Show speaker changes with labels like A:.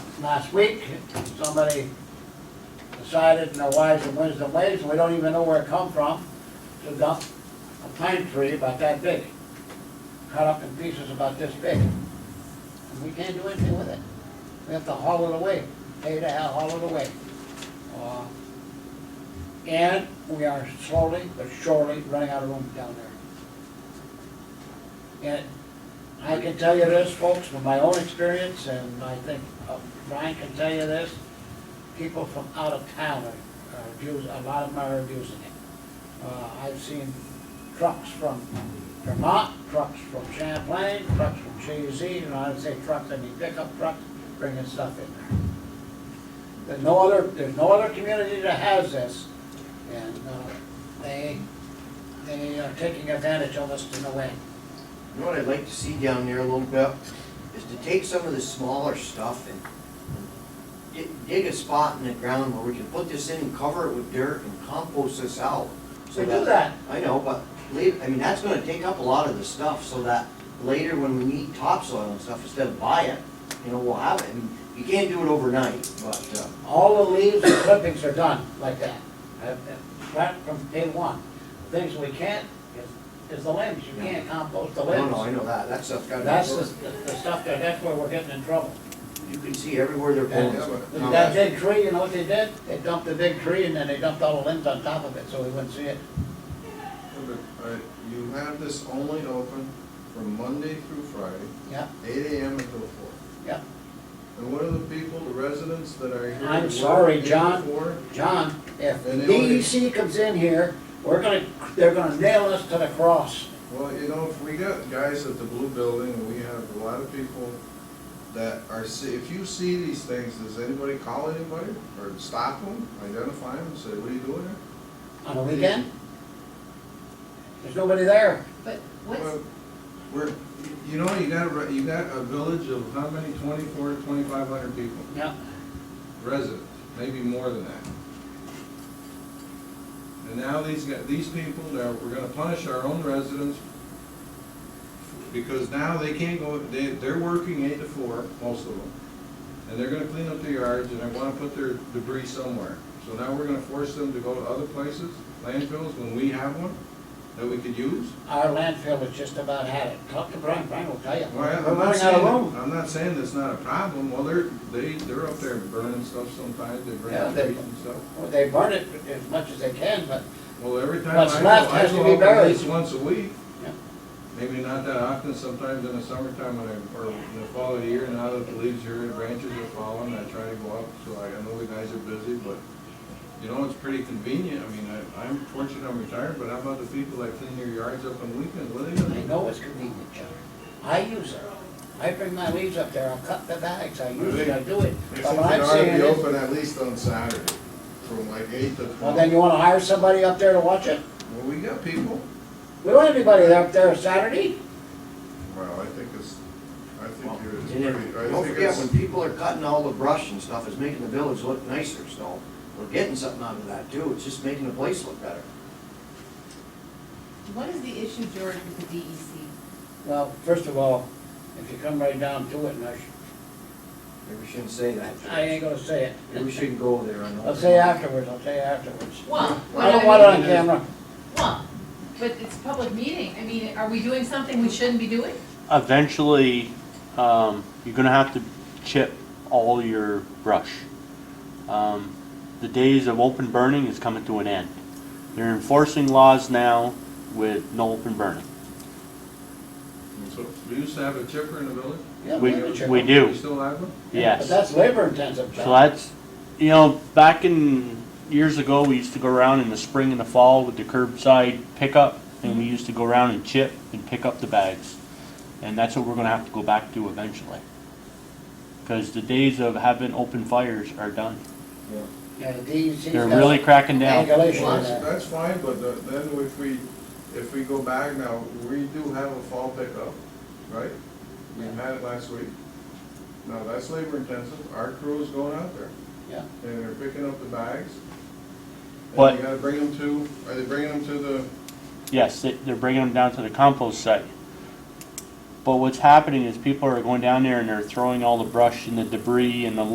A: last week, somebody decided in their wise and wisdom ways, we don't even know where it come from, to dump a pine tree about that big, cut up in pieces about this big. And we can't do anything with it. We have to haul it away, pay to hell, haul it away. Uh, And we are slowly but surely running out of room down there. And I can tell you this, folks, from my own experience, and I think uh, Brian can tell you this, people from out of town are are abusing, a lot of them are abusing it. Uh, I've seen trucks from Vermont, trucks from Champlain, trucks from Chazy, and I'd say trucks, I mean pickup trucks, bringing stuff in there. There's no other, there's no other community that has this, and uh, they, they are taking advantage of us in a way.
B: You know what I'd like to see down there a little bit, is to take some of the smaller stuff and dig- dig a spot in the ground where we can put this in and cover it with dirt and compost this out. so
A: We do that.
B: I know, but later, I mean, that's gonna take up a lot of the stuff, so that later when we need topsoil and stuff, instead of buy it, you know, we'll have it. I mean, You can't do it overnight, but, uh,
A: All the leaves and clippings are done like that, uh, uh, right from day one. Things we can't is, is the limbs, you can't compost the
B: no, no, I
A: limbs.
B: know that, that stuff's gotta be.
A: That's
B: worked.
A: the, the stuff that, that's where we're getting in trouble.
B: You can see everywhere they're
A: And
B: pulling.
A: That that big tree, you know what they did? They dumped the big tree and then they dumped all the limbs on top of it, so we wouldn't see it.
C: Alright, uh, you have this only open from Monday through Friday,
A: Yeah,
C: eight AM until four.
A: yeah.
C: And what are the people, the residents that are here?
A: I'm
C: to work
A: sorry,
C: eight to
A: John.
C: four?
A: John, if
C: And they already-
A: DEC comes in here, we're gonna, they're gonna nail us to the cross.
C: Well, you know, if we got guys at the blue building, and we have a lot of people that are, see- if you see these things, does anybody call anybody? Or stop them, identify them, say, what are you doing here?
A: On the weekend? There's nobody there.
D: But
C: Well,
D: what's,
C: We're, you know, you got, a re- you got a village of how many, twenty-four, twenty-five hundred people,
A: Yeah.
C: residents, maybe more than that. And now these, got- these people, now, we're gonna punish our own residents because now they can't go, they, they're working eight to four, most of them. And they're gonna clean up the yards and they wanna put their debris somewhere. So now we're gonna force them to go to other places, landfills, when we have one that we could use?
A: Our landfill has just about had it. Talk to Brian, Brian will tell you.
C: Well,
A: We're
C: I'm not
A: running out of
C: saying,
A: room.
C: I'm not saying that's not a problem, well, they're, they, they're up there burning stuff sometimes, they burn
A: Yeah,
C: up
A: they-
C: trees and stuff.
A: Well, They burn it as much as they can, but,
C: Well, every time
A: What's
C: I go,
A: left
C: I
A: has to be
C: go up at
A: buried.
C: least once a week,
A: yeah.
C: maybe not that often, sometimes in the summertime when I, or in the fall of the year, now that the leaves here and branches are falling, I try to go up, so I, I know the guys are busy, but, you know, it's pretty convenient, I mean, I, I'm fortunate I'm retired, but how about the people that clean their yards up on weekends, what are they gonna do?
A: I know it's convenient, John. I use it. I bring my leaves up there, I'll cut the bags, I use it, I do it.
C: I
A: But what
C: think it
A: I'm
C: ought to
A: saying
C: be
A: is,
C: open at least on Saturday, from like eight to
A: well,
C: twelve.
A: then you wanna hire somebody up there to watch it?
C: Well, we got people.
A: We don't have anybody up there Saturday.
C: Well, I think it's, I think you're, it's
B: And then,
C: pretty, I
B: don't
C: think
B: forget, when
C: it's,
B: people are cutting all the brush and stuff, it's making the village look nicer, so we're getting something out of that too, it's just making the place look better.
D: what is the issue, George, with the E DEC?
A: Well, first of all, if you come right down to it, and I, sh-
B: Maybe we shouldn't say that.
A: I ain't gonna say it.
B: Maybe we shouldn't go there, I know.
A: I'll say afterwards, I'll say afterwards.
D: Well, what
A: I don't want it
D: I
A: on
D: mean,
A: camera.
D: well, but it's a public meeting, I mean, are we doing something we shouldn't be doing?
E: eventually, um, you're gonna have to chip all your brush. Um, the days of open burning is coming to an end. They're enforcing laws now with no open burning.
C: so, we used to have a chipper in the village?
A: Yeah,
E: We-
A: have a chipper.
E: we do.
C: We still have one?
E: Yes.
A: But that's labor intensive,
E: So
A: John.
E: that's, you know, back in, years ago, we used to go around in the spring and the fall with the curbside pickup, and we used to go around and chip and pick up the bags. And that's what we're gonna have to go back to eventually. Cause the days of having open fires are done.
B: Yeah.
A: Yeah, the DEC's
E: They're
A: got
E: really cracking down.
A: Regulation
C: Well,
A: on
C: that's,
A: that.
C: that's fine, but the- then if we, if we go back now, we do have a fall pickup, right? We
A: Yeah.
C: had it last week. Now, that's labor intensive, our crew is going out there,
A: Yeah.
C: and they're picking up the bags. And
E: But-
C: you gotta bring them to, are they bringing them to the,
E: Yes, they- they're bringing them down to the compost site. But what's happening is people are going down there and they're throwing all the brush and the debris and the